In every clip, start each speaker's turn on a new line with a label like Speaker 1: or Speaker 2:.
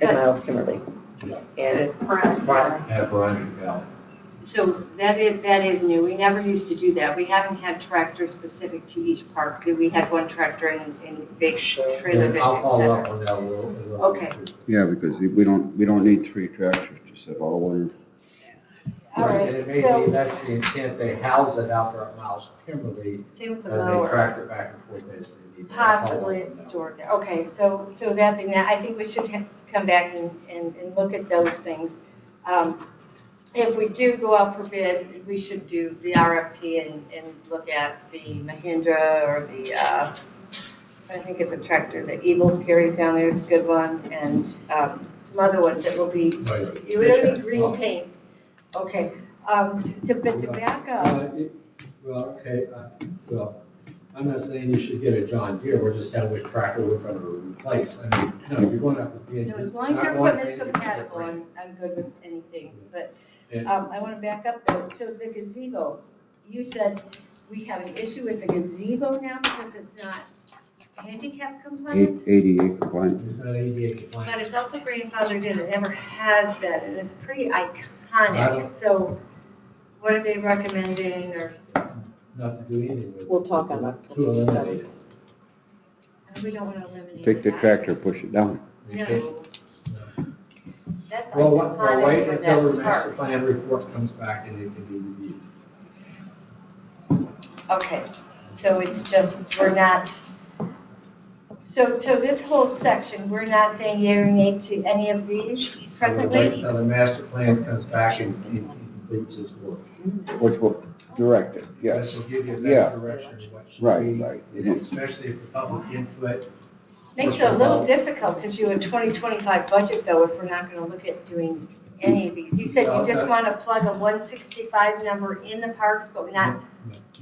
Speaker 1: and Miles Kimberly. And
Speaker 2: Brian.
Speaker 1: Brian.
Speaker 3: Yeah, Brian, yeah.
Speaker 2: So that is, that is new. We never used to do that. We haven't had tractors specific to each park. We had one tractor in, in big trailer,
Speaker 3: And
Speaker 2: big,
Speaker 3: I'll
Speaker 2: et
Speaker 3: follow up
Speaker 2: cetera.
Speaker 3: on that a little. a little
Speaker 2: Okay.
Speaker 3: bit, too.
Speaker 4: Yeah, because we don't, we don't need three tractors to set all one.
Speaker 2: All right,
Speaker 3: And it may
Speaker 2: so-
Speaker 3: be, that's the intent, they house it out there at Miles Kimberly,
Speaker 2: Same with
Speaker 3: and
Speaker 2: the
Speaker 3: they
Speaker 2: mower.
Speaker 3: track it back and forth as they need. I'll follow
Speaker 2: Possibly
Speaker 3: up on
Speaker 2: it's
Speaker 3: that.
Speaker 2: stored there. Okay, so, so that thing, now I think we should ha- come back and, and, and look at those things. Um, If we do go out for bid, we should do the RFP and, and look at the Mahindra or the, uh, I think it's a tractor, the Eagles carries down there is a good one, and, um, some other ones that will be,
Speaker 3: Right.
Speaker 2: you would
Speaker 3: Yes,
Speaker 2: need
Speaker 3: sir.
Speaker 2: green
Speaker 3: Well,
Speaker 2: paint. Okay, um, to, but tobacco,
Speaker 3: uh, it- Well, okay, uh, well, I'm not saying you should get a John Deere, we're just telling which tractor we're gonna replace. I mean, no, you're going up to bid.
Speaker 2: no, as long as your equipment's compatible, I'm, I'm good with anything, but Um, I want to back up though, so the gazebo, you said we have an issue with the gazebo now because it's not handicap
Speaker 4: Eight-
Speaker 2: compliant?
Speaker 4: 88 compliant.
Speaker 3: It's not ADA
Speaker 2: But
Speaker 3: compliant.
Speaker 2: it's also grandfathered in, it never has been, and it's pretty
Speaker 3: I
Speaker 2: iconic, so what are they recommending or,
Speaker 3: Not to do anything with.
Speaker 1: We'll talk on
Speaker 3: that.
Speaker 1: October
Speaker 3: To eliminate it.
Speaker 2: we don't want to eliminate
Speaker 4: Take the
Speaker 2: that.
Speaker 4: tractor, push it down.
Speaker 3: We can't-
Speaker 2: No.
Speaker 3: uh,
Speaker 2: That's
Speaker 3: Well, what- we'll wait
Speaker 2: iconic
Speaker 3: until the
Speaker 2: for
Speaker 3: master
Speaker 2: that park.
Speaker 3: plan report comes back and it can be reviewed.
Speaker 2: Okay, so it's just, we're not, so, so this whole section, we're not saying yea or nay to any of these
Speaker 3: We'll wait
Speaker 2: presently?
Speaker 3: uh, Until the master plan comes back and and completes its work.
Speaker 4: Which will direct it, yes.
Speaker 3: This will give you a
Speaker 4: Yeah.
Speaker 3: better direction of what should be.
Speaker 4: Right, right.
Speaker 3: and Especially if the public input.
Speaker 2: Makes it a little difficult to do a 2025 budget, though, if we're not going to look at doing any of these. You said you just want to plug a 165 number in the parks, but not,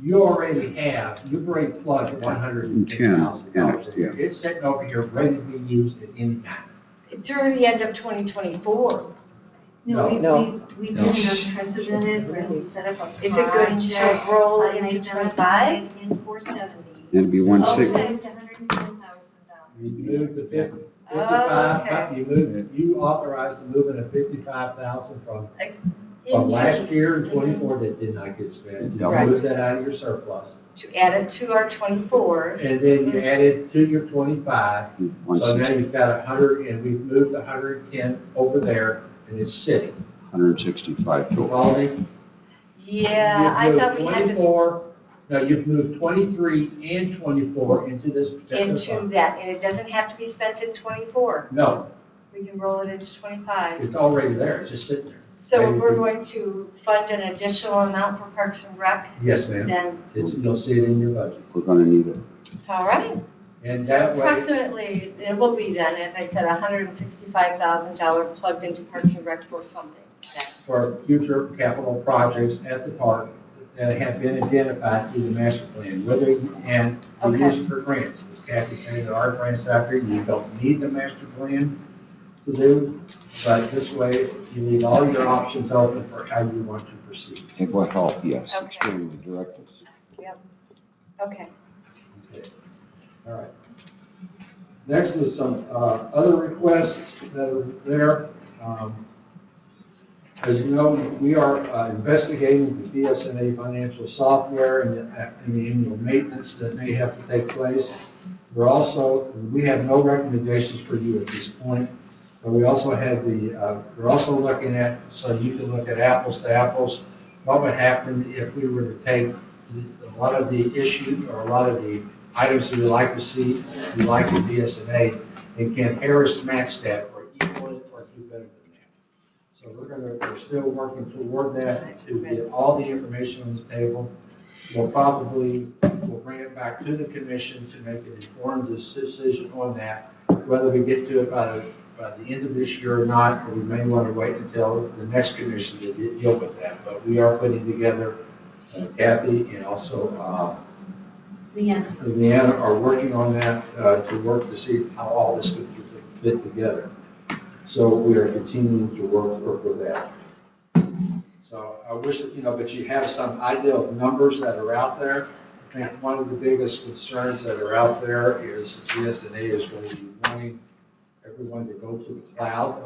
Speaker 3: You already have, you've already plugged one hundred and ten thousand dollars.
Speaker 4: Yeah, yeah.
Speaker 3: It's sitting over here, ready to be used at any time.
Speaker 2: through the end of 2024.
Speaker 5: No, we,
Speaker 1: No.
Speaker 5: we, we
Speaker 3: No.
Speaker 5: did an unprecedented, we're gonna set up a.
Speaker 2: Is it good to
Speaker 5: project
Speaker 2: roll
Speaker 5: on
Speaker 2: into
Speaker 5: item
Speaker 2: 25?
Speaker 5: In four seventy.
Speaker 4: It'll be one
Speaker 5: Up to
Speaker 4: six,
Speaker 2: Okay.
Speaker 5: hundred and ten thousand dollars.
Speaker 3: You moved the fifty,
Speaker 2: Oh,
Speaker 3: fifty-five,
Speaker 2: okay.
Speaker 3: but you moved it, you authorized the movement of fifty-five thousand from, from
Speaker 2: Into-
Speaker 3: last year in
Speaker 2: Mm-hmm.
Speaker 3: twenty-four that did not get spent. You
Speaker 4: Right.
Speaker 3: moved that out of your surplus.
Speaker 2: To add it to our 24s.
Speaker 3: And then
Speaker 2: Mm-hmm.
Speaker 3: you added to your twenty-five,
Speaker 4: one
Speaker 3: So now
Speaker 4: six,
Speaker 3: you've got a hundred, and we've moved a hundred and ten over there, and it's sitting.
Speaker 4: 165
Speaker 3: You
Speaker 4: total.
Speaker 3: follow me?
Speaker 2: Yeah, I
Speaker 3: You've
Speaker 2: thought
Speaker 3: moved
Speaker 2: we had to
Speaker 3: 24 No, you've moved twenty-three and twenty-four into this particular
Speaker 2: into
Speaker 3: fund.
Speaker 2: that, and it doesn't have to be spent in 24.
Speaker 3: No,
Speaker 2: We can roll it into 25.
Speaker 3: it's already there, it's just sitting there.
Speaker 2: So we're going to fund an additional amount for Parks and Rec,
Speaker 3: Yes, ma'am,
Speaker 2: then,
Speaker 3: it's, you'll see it in your budget.
Speaker 4: We're gonna need it.
Speaker 2: all right.
Speaker 3: And
Speaker 2: So
Speaker 3: that way,
Speaker 2: Approximately, it will be then, as I said, $165,000 plugged into Parks and Rec for something.
Speaker 3: for future capital projects at the park that have been identified through the master plan, whether, you- and we
Speaker 2: Okay.
Speaker 3: use it for grants. As Kathy said, there are grants out there, you don't need the master plan to do, but this way, you leave all your options open for how you want to proceed.
Speaker 4: It will help, yes,
Speaker 2: Okay.
Speaker 4: extremely direct us.
Speaker 2: Okay.
Speaker 3: Okay. All right. Next is some uh, other requests that are there. Um, As you know, we are uh, investigating the BSNA financial software and the- uh, and the annual maintenance that may have to take place. We're also, we have no recommendations for you at this point. But we also have the, uh, we're also looking at, so you can look at apples to apples, what would happen if we were to take a lot of the issue or a lot of the items that we like to see, we like in BSNA, and can Harris match that or equal it or do better than that. So we're gonna, we're still working toward that to get all the information on the table. We'll probably, we'll bring it back to the commission to make an informed decision on that, whether we get to it by, the- by the end of this year or not, or we may want to wait until the next commission to de- deal with that. But we are putting together, uh, Kathy and also uh,
Speaker 5: Leanna,
Speaker 3: Leanna are working on that uh, to work to see how all this could fit together. So we are continuing to work, work with that. So I wish, that, you know, but you have some idea of numbers that are out there. I think one of the biggest concerns that are out there is GSNA is going to be wanting everyone to go to the cloud